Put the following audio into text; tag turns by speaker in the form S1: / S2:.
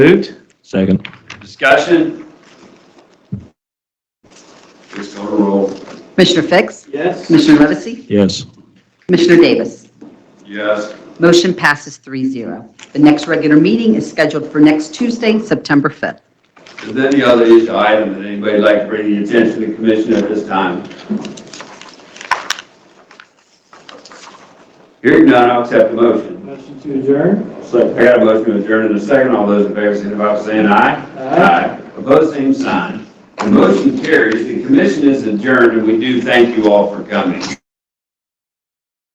S1: Moved.
S2: Second.
S1: Discussion. Please call the roll.
S3: Commissioner Fix?
S1: Yes.
S3: Commissioner Levesey?
S2: Yes.
S3: Commissioner Davis?
S1: Yes.
S3: Motion passes 3-0. The next regular meeting is scheduled for next Tuesday, September 5th.
S1: Is there any other issue item that anybody would like to bring to the attention of the commission at this time? Hearing none, I'll accept the motion.
S4: Motion to adjourn?
S1: So I got a motion to adjourn in a second. All those in favor, signify by saying aye. Aye. Opposed, same sign. The motion carries. The commission is adjourned, and we do thank you all for coming.